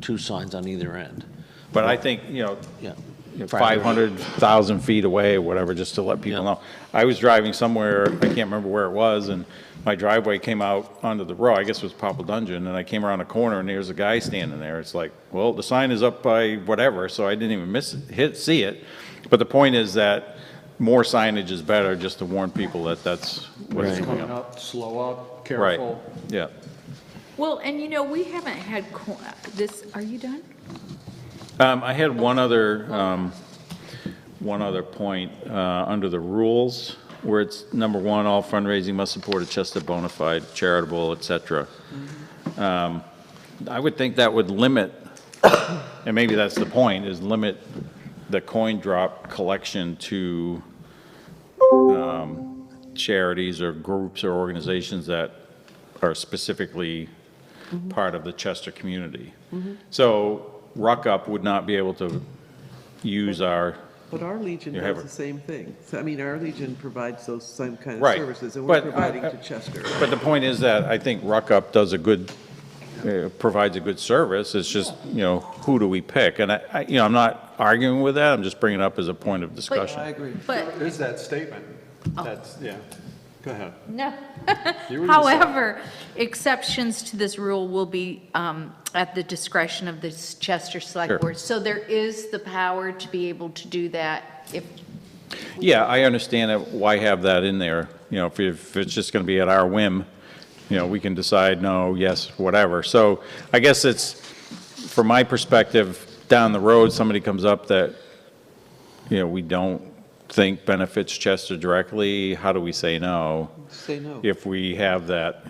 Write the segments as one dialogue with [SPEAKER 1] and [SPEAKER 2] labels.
[SPEAKER 1] two signs on either end.
[SPEAKER 2] But I think, you know,
[SPEAKER 1] Yeah.
[SPEAKER 2] you know, 500,000 feet away or whatever, just to let people
[SPEAKER 1] Yeah.
[SPEAKER 2] know. I was driving somewhere, I can't remember where it was, and my driveway came out onto the road, I guess it was Popple Dungeon, and I came around a corner and there's a guy standing there. It's like, well, the sign is up by whatever, so I didn't even miss, hit, see it. But the point is that more signage is better, just to warn people that that's what's
[SPEAKER 1] Right.
[SPEAKER 2] going
[SPEAKER 3] Coming
[SPEAKER 2] on.
[SPEAKER 3] up, slow up,
[SPEAKER 2] Right,
[SPEAKER 3] careful.
[SPEAKER 2] yeah.
[SPEAKER 4] Well, and you know, we haven't had co- this, are you done?
[SPEAKER 2] Um, I had one other, um, one other point, uh, under the rules, where it's, number one, all fundraising must support a Chester bona fide, charitable, et cetera. Um, I would think that would limit, and maybe that's the point, is limit the coin drop collection to, um, charities or groups or organizations that are specifically part of the Chester community. So Ruckup would not be able to use our,
[SPEAKER 5] But our Legion
[SPEAKER 2] You have
[SPEAKER 5] does
[SPEAKER 2] it.
[SPEAKER 5] the same thing. So, I mean, our Legion provides those same kind of
[SPEAKER 2] Right,
[SPEAKER 5] services, and we're
[SPEAKER 2] but I-
[SPEAKER 5] providing
[SPEAKER 2] I-
[SPEAKER 5] to Chester.
[SPEAKER 2] but the point is that I think Ruckup does a good, uh, provides a good service, it's just, you know, who do we pick? And I- I, you know, I'm not arguing with that, I'm just bringing it up as a point of discussion.
[SPEAKER 3] agree.
[SPEAKER 4] But-
[SPEAKER 3] There's that statement. That's, yeah. Go ahead.
[SPEAKER 4] No.
[SPEAKER 3] You were gonna say-
[SPEAKER 4] However, exceptions to this rule will be um, at the discretion of the
[SPEAKER 2] Sure.
[SPEAKER 4] Chester Select Board. So there is the power to be able to do that if,
[SPEAKER 2] Yeah, I understand that, why have that in there? You know, if- if it's just going to be at our whim, you know, we can decide no, yes, whatever. So I guess it's, from my perspective, down the road, somebody comes up that, you know, we don't think benefits Chester directly, how do we say no?
[SPEAKER 5] Say no.
[SPEAKER 2] If we have that,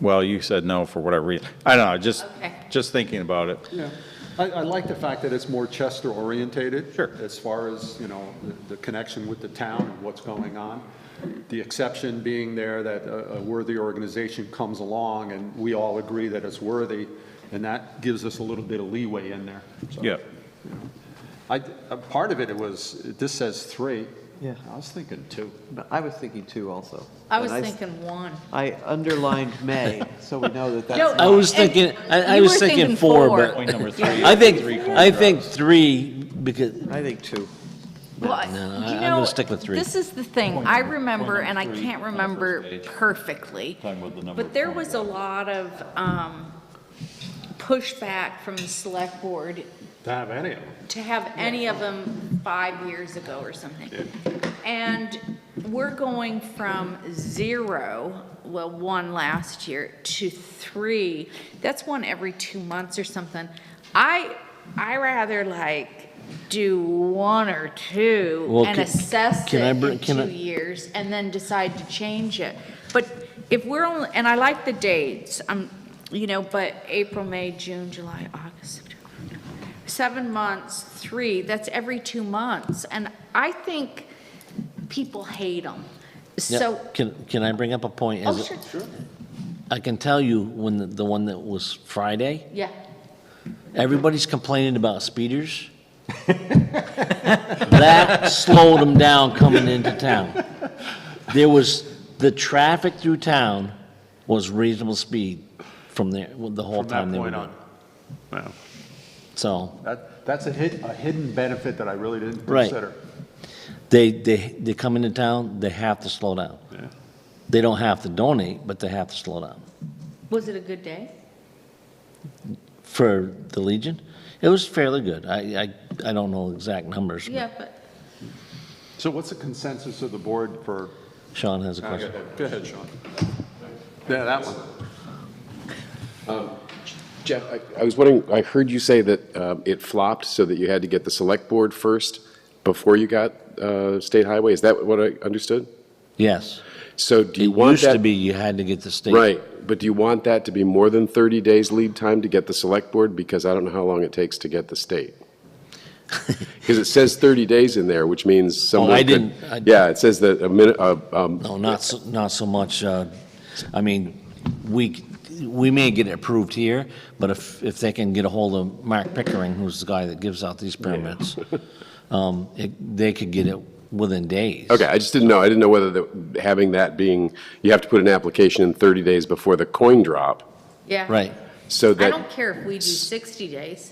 [SPEAKER 2] well, you said no for whatever reason. I don't know, just,
[SPEAKER 4] Okay.
[SPEAKER 2] just thinking about it.
[SPEAKER 3] Yeah. I, I like the fact that it's more Chester orientated.
[SPEAKER 2] Sure.
[SPEAKER 3] As far as, you know, the, the connection with the town and what's going on. The exception being there that a, a worthy organization comes along and we all agree that it's worthy, and that gives us a little bit of leeway in there. So,
[SPEAKER 2] Yeah,
[SPEAKER 3] I, a part of it, it was, this says three.
[SPEAKER 6] Yeah.
[SPEAKER 3] I was thinking two.
[SPEAKER 6] But I was thinking two also.
[SPEAKER 4] I
[SPEAKER 6] And
[SPEAKER 4] was
[SPEAKER 6] s-
[SPEAKER 4] thinking one.
[SPEAKER 6] I underlined May, so we know that that's.
[SPEAKER 4] No,
[SPEAKER 6] not-
[SPEAKER 1] I was
[SPEAKER 4] And
[SPEAKER 1] thinking, I, I
[SPEAKER 4] you
[SPEAKER 1] was
[SPEAKER 4] were
[SPEAKER 1] thinking
[SPEAKER 4] thinking
[SPEAKER 1] four,
[SPEAKER 4] four.
[SPEAKER 1] but.
[SPEAKER 2] Point number three
[SPEAKER 1] I
[SPEAKER 2] is
[SPEAKER 1] think,
[SPEAKER 2] three
[SPEAKER 1] I
[SPEAKER 2] corn
[SPEAKER 1] think
[SPEAKER 2] drops.
[SPEAKER 1] three, because,
[SPEAKER 4] oh.
[SPEAKER 6] I think two.
[SPEAKER 4] Well, I-
[SPEAKER 1] No,
[SPEAKER 4] you
[SPEAKER 1] I- I'm
[SPEAKER 4] know,
[SPEAKER 1] gonna stick with three.
[SPEAKER 4] This is the thing, I remember, and I can't remember perfectly,
[SPEAKER 2] Talking about the number
[SPEAKER 4] but
[SPEAKER 2] of
[SPEAKER 4] there
[SPEAKER 2] points.
[SPEAKER 4] was a lot of um, pushback from the select board
[SPEAKER 3] To have any of them.
[SPEAKER 4] to have any of them five years ago or something. And we're going from zero, well, one last year, to three. That's one every two months or something. I, I rather like do one or two
[SPEAKER 1] Well,
[SPEAKER 4] and
[SPEAKER 1] can-
[SPEAKER 4] assess it
[SPEAKER 1] can I br-
[SPEAKER 4] in
[SPEAKER 1] can I-
[SPEAKER 4] two years and then decide to change it. But if we're only, and I like the dates, um, you know, but April, May, June, July, August, September, seven months, three, that's every two months. And I think people hate them.
[SPEAKER 1] yeah,
[SPEAKER 4] So,
[SPEAKER 1] can, can I bring up a point?
[SPEAKER 4] oh,
[SPEAKER 1] As-
[SPEAKER 4] sure,
[SPEAKER 1] I can tell you, when, the- the one that was Friday,
[SPEAKER 4] yeah.
[SPEAKER 1] everybody's complaining about speeders. That slowed them down coming into town. There was, the traffic through town was reasonable speed from there, the whole
[SPEAKER 3] From
[SPEAKER 1] time
[SPEAKER 3] that
[SPEAKER 1] they were
[SPEAKER 3] point
[SPEAKER 1] there.
[SPEAKER 3] on. Wow.
[SPEAKER 1] So.
[SPEAKER 3] That, that's a hid, a hidden benefit that I really didn't
[SPEAKER 1] Right.
[SPEAKER 3] consider.
[SPEAKER 1] They, they, they come into town, they have to slow down. They don't have to donate, but they have to slow down.
[SPEAKER 4] Was it a good day?
[SPEAKER 1] For the Legion, it was fairly good. I, I, I don't know exact numbers. but
[SPEAKER 4] Yeah, but
[SPEAKER 3] So what's the consensus of the board for?
[SPEAKER 1] Sean has a
[SPEAKER 3] Go
[SPEAKER 1] question.
[SPEAKER 3] ahead, Sean. Yeah, that one.
[SPEAKER 7] Jeff, I- I was wondering, I heard you say that um, it flopped so that you had to get the select board first before you got uh, state highway. Is that what I understood?
[SPEAKER 1] Yes.
[SPEAKER 7] So do you
[SPEAKER 1] It
[SPEAKER 7] want
[SPEAKER 1] used
[SPEAKER 7] that?
[SPEAKER 1] to be you had to get the state.
[SPEAKER 7] Right, but do you want that to be more than 30 days lead time to get the select board? Because I don't know how long it takes to get the state. Because it says 30 days in there, which means someone
[SPEAKER 1] Oh, I
[SPEAKER 7] could-
[SPEAKER 1] didn't- I-
[SPEAKER 7] Yeah, it says that a minute, uh, um,
[SPEAKER 1] No, not, so- not so much, uh, I mean, we, c- we may get it approved here, but if, if they can get a hold of Mark Pickering, who's the guy that gives out these permits, um, it- they could get it within days.
[SPEAKER 7] Okay, I just didn't know. I didn't know whether the, having that being, you have to put an application in 30 days before the coin drop,
[SPEAKER 4] yeah.
[SPEAKER 1] Right.
[SPEAKER 7] so
[SPEAKER 4] I
[SPEAKER 7] that.
[SPEAKER 4] don't care if we do 60 days.